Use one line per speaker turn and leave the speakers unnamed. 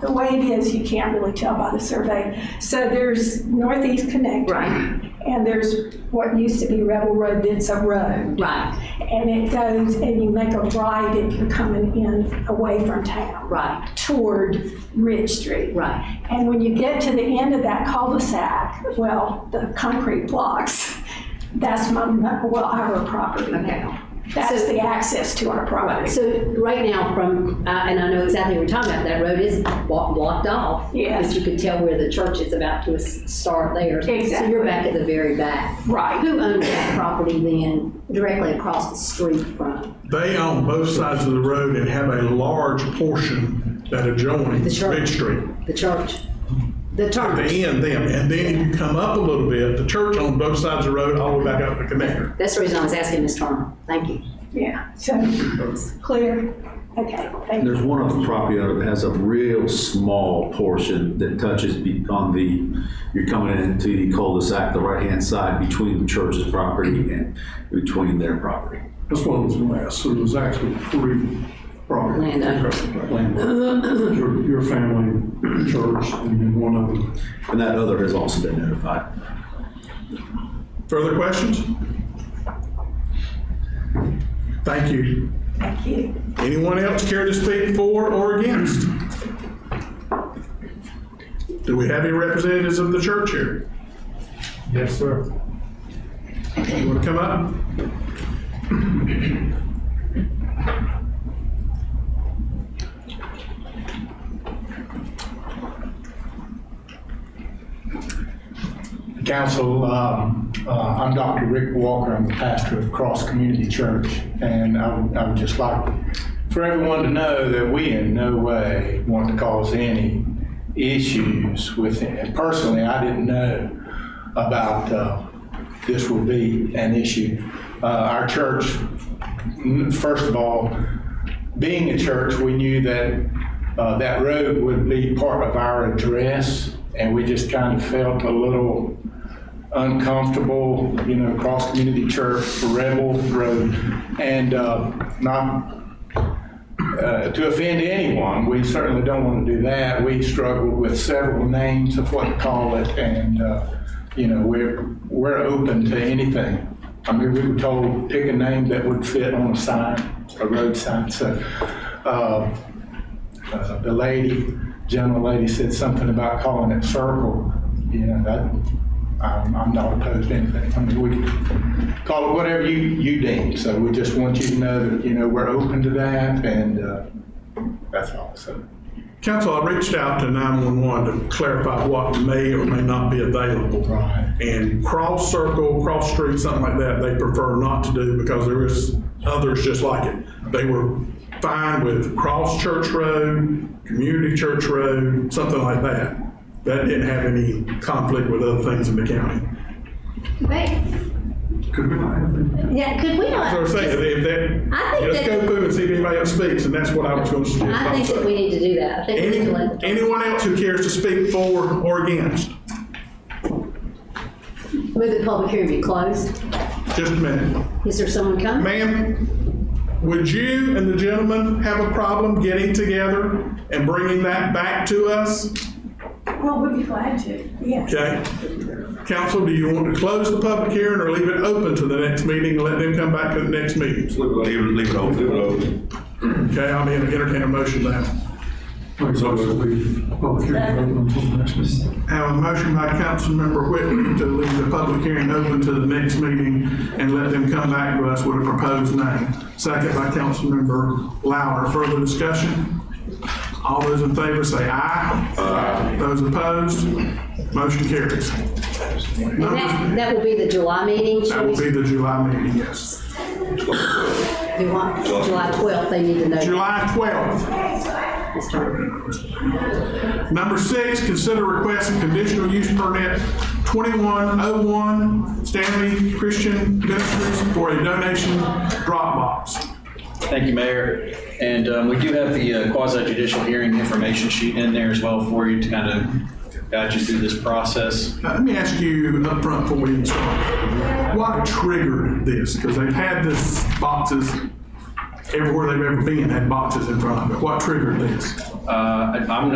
the way it is, you can't really tell by the survey. So there's Northeast Connect.
Right.
And there's what used to be Rebel Road, that's a road.
Right,
And it goes, and you make a right if you're coming in away from town.
right,
Toward Ridge Street.
right,
And when you get to the end of that cul-de-sac, well, the concrete blocks, that's my, my- well, our property now. That's the access to our
right.
property.
So right now from, uh, and I know exactly what you're talking about, that road is blo- blocked off.
Yeah.
Because you can tell where the church is about to s- start there. So
Exactly.
you're back at the very back.
Right.
Who owns that property then, directly across the street from?
They own both sides of the road and have a large portion that adjoin
The church.
Ridge Street.
The church? The church,
They end them, and then if you come up a little bit, the church on both sides of the road, all the way back up to Connector.
that's the reason I was asking Ms. Turner, thank you.
Yeah, so, clear? Okay, thank you.
There's one other property owner that has a real small portion that touches be- on the, you're coming into the cul-de-sac, the right-hand side between the church's property and between their property.
That's what I was going to ask, so there's actually three property.
Landowners.
Landowners. Your, your family, church, and then one other.
And that other has also been notified.
Further questions? Thank you.
Thank you.
Anyone else care to speak for or against? Do we have any representatives of the church here?
Yes, sir.
You want to come up?
Council, um, uh, I'm Dr. Rick Walker, I'm the pastor of Cross Community Church, and I would- I would just like for everyone to know that we in no way want to cause any issues with it. And Personally, I didn't know about uh, this would be an issue. Uh, Our church, mm, first of all, being a church, we knew that uh, that road would be part of our address, and we just kind of felt a little uncomfortable, you know, Cross Community Church, Rebel Road, and uh, not uh, to offend anyone. We certainly don't want to do that. We struggled with several names of what to call it, and, uh, you know, we're, we're open to anything. I mean, we were told, pick a name that would fit on a sign, a road sign, so, uh, uh, the lady, gentle lady said something about calling it circle. You know, that, I'm, I'm not opposed to anything. I mean, we can call it whatever you, you deem. So we just want you to know that, you know, we're open to that and, uh, that's all, so.
Council, I reached out to 911 to clarify what may or may not be available.
Right.
And cross circle, cross street, something like that, they prefer not to do because there is others just like it. They were fine with cross church road, community church road, something like that. That didn't have any conflict with other things in the county.
Could we not have that?
Yeah, could we not?
So I'm saying, if that,
I think that-
let's go through and see if anybody else speaks, and that's what I was going to suggest.
I think that we need to do that. I think we need to let.
Any- Anyone else who cares to speak for or against?
Move the public hearing be closed.
Just a minute.
Is there someone coming?
Ma'am, would you and the gentleman have a problem getting together and bringing that back to us?
Well, we'd be glad to, yes.
Okay. Council, do you want to close the public hearing or leave it open to the next meeting and let them come back to the next meeting?
Leave it, leave it open. Leave it open.
Okay, I'll be entertaining a motion now.
Like, so it'll be public hearing open until the next meeting.
Have a motion by Councilmember Whitman to leave the public hearing open to the next meeting and let them come back to us with a proposed name. Second by Councilmember Louder. Further discussion? All those in favor say aye. Aye. Those opposed, motion carries.
And that, that will be the July meeting.
That
Should we
will be the July meeting, yes.
do what? July 12th, they need to know.
July 12th.
Ms. Turner.
Number six, consider request of conditional use permit 2101 Stanley Christian Ministries for a donation drop box.
Thank you, Mayor. And um, we do have the quasi judicial hearing information sheet in there as well for you to kind of guide you through this process.
Now, let me ask you up front before we even start, what triggered this? Because they've had this boxes, everywhere they've ever been had boxes in front of it. What triggered this?
Uh, I- I'm